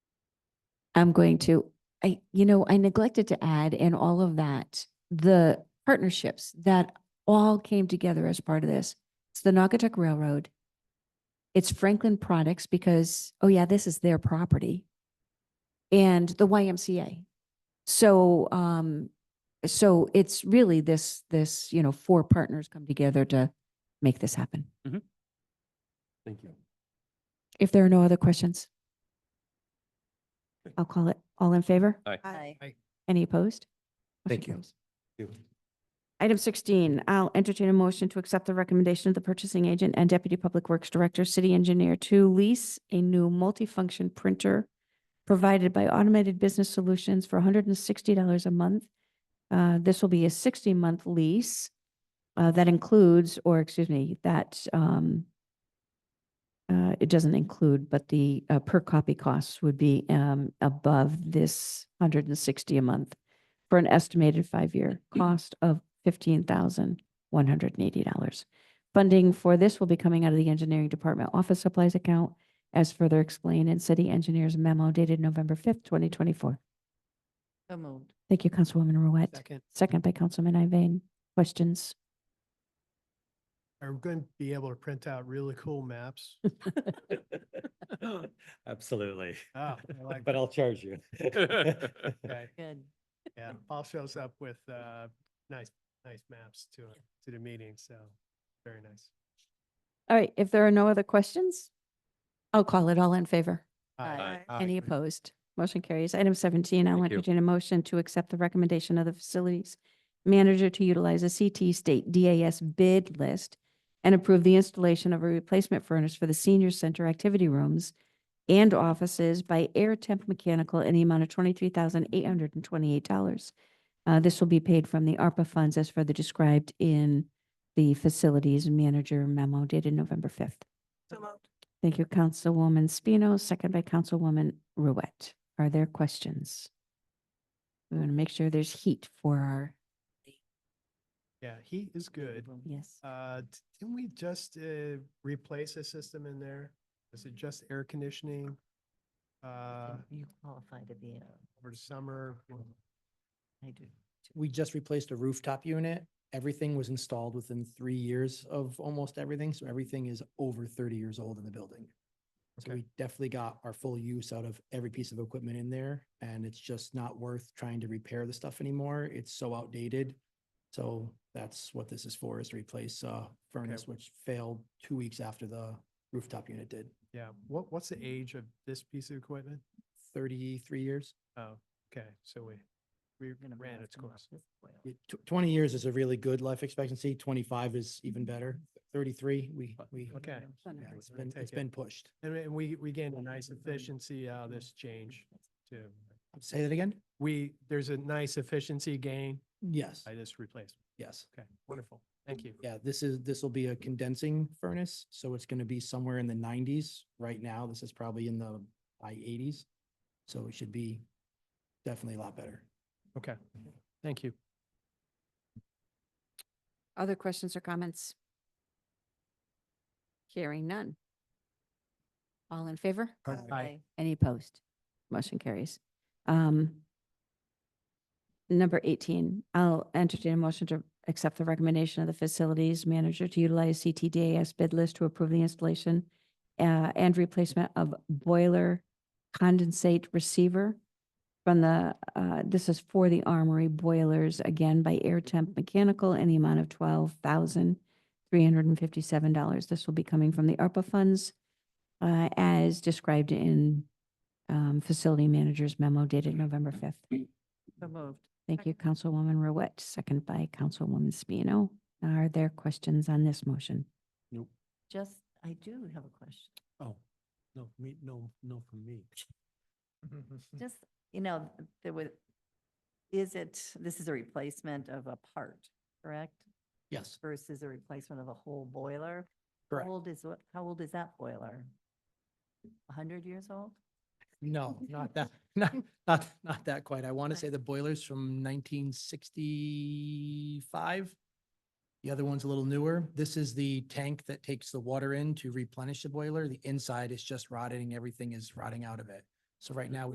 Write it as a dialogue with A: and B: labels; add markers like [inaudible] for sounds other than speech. A: I'm going to, I, you know, I neglected to add in all of that, the partnerships that all came together as part of this. It's the Naugatuck Railroad. It's Franklin Products because, oh yeah, this is their property. And the YMCA. So, um, so it's really this, this, you know, four partners come together to make this happen.
B: Mm-hmm. Thank you.
A: If there are no other questions. I'll call it. All in favor?
C: Aye.
A: Any opposed? Motion
B: Thank you.
A: carries.
B: Thank you.
A: Item sixteen, I'll entertain a motion to accept the recommendation of the purchasing agent and deputy public works director, city engineer to lease a new multifunction printer provided by Automated Business Solutions for hundred and sixty dollars a month. Uh, this will be a sixty-month lease uh, that includes, or excuse me, that um, uh, it doesn't include, but the uh, per copy costs would be um, above this hundred and sixty a month for an estimated five-year cost of fifteen thousand one hundred and eighty dollars. Funding for this will be coming out of the engineering department office supplies account as further explained in city engineers memo dated November fifth, twenty twenty-four.
C: So moved.
A: Thank you, Councilwoman Ruette.
D: Second,
A: Second by Councilman Iveyne. Questions?
D: are we going to be able to print out really cool maps?
B: [laughs] Absolutely.
D: Ah, I
C: [laughs]
D: like
B: But I'll charge you.
D: [laughs] Okay,
C: Good.
D: yeah, Paul shows up with, uh, nice, nice maps to, to the meeting, so very nice.
A: All right, if there are no other questions, I'll call it all in favor.
D: Aye.
A: Any opposed? Motion carries. Item seventeen, I'll
B: Thank you.
A: entertain a motion to accept the recommendation of the facilities manager to utilize a CT State DAS bid list and approve the installation of a replacement furnace for the senior center activity rooms and offices by Air Temp Mechanical in the amount of twenty-three thousand eight hundred and twenty-eight dollars. Uh, this will be paid from the ARPA funds as further described in the facilities manager memo dated November fifth. Thank you, Councilwoman Spino, second by Councilwoman Ruette. Are there questions? We want to make sure there's heat for our,
D: Yeah, he is good.
A: yes.
D: Uh, d- didn't we just, uh, replace a system in there? Is it just air conditioning? Uh,
C: You qualify to be a,
D: over the summer?
C: I do.
E: we just replaced a rooftop unit. Everything was installed within three years of almost everything, so everything is over thirty years old in the building. So
D: Okay.
E: we definitely got our full use out of every piece of equipment in there, and it's just not worth trying to repair the stuff anymore. It's so outdated. So that's what this is for, is to replace uh furnace, which failed two weeks after the rooftop unit did,
D: Yeah, what, what's the age of this piece of equipment?
E: thirty-three years.
D: Oh, okay, so we, we
C: Gonna
D: ran
C: blast
D: its
C: them up
D: course.
C: with oil.
E: Yeah, tw- Twenty years is a really good life expectancy, twenty-five is even better, thirty-three, we, we.
D: Okay.
E: Yeah, it's
D: we're gonna
E: been, it's
D: take it.
E: been pushed.
D: And we- and we, we gained a nice efficiency out of this change too.
E: Say that again?
D: We, there's a nice efficiency gain
E: Yes,
D: by this replacement.
E: yes.
D: Okay, wonderful. Thank you.
E: Yeah, this is, this will be a condensing furnace, so it's gonna be somewhere in the nineties. Right now, this is probably in the high eighties. So it should be definitely a lot better.
D: Okay, thank you.
A: Other questions or comments? Hearing none. All in favor?
C: Aye.
A: Any opposed? Motion carries. Um, Number 18, I'll entertain a motion to accept the recommendation of the facilities manager to utilize CTDAS bid list to approve the installation uh, and replacement of boiler condensate receiver from the, uh, this is for the armory boilers, again by Air Temp Mechanical in the amount of $12,357. This will be coming from the ARPA funds uh, as described in um, facility manager's memo dated November 5th.
C: So moved.
A: Thank you, Councilwoman Ruette, second by Councilwoman Spino. Are there questions on this motion?
C: Just, I do have a question.
D: Oh, no, me, no, no from me. Hmm.
C: Just, you know, there was, is it, this is a replacement of a part, correct?
E: Yes,
C: Versus a replacement of a whole boiler? How
E: correct.
C: old is, what? how old is that boiler? A hundred years old?
E: No, not that, [laughs] not, not, not that quite. I want to say the boiler's from nineteen sixty-five. The other one's a little newer. This is the tank that takes the water in to replenish the boiler. The inside is just rotting. Everything is rotting out of it. So right now,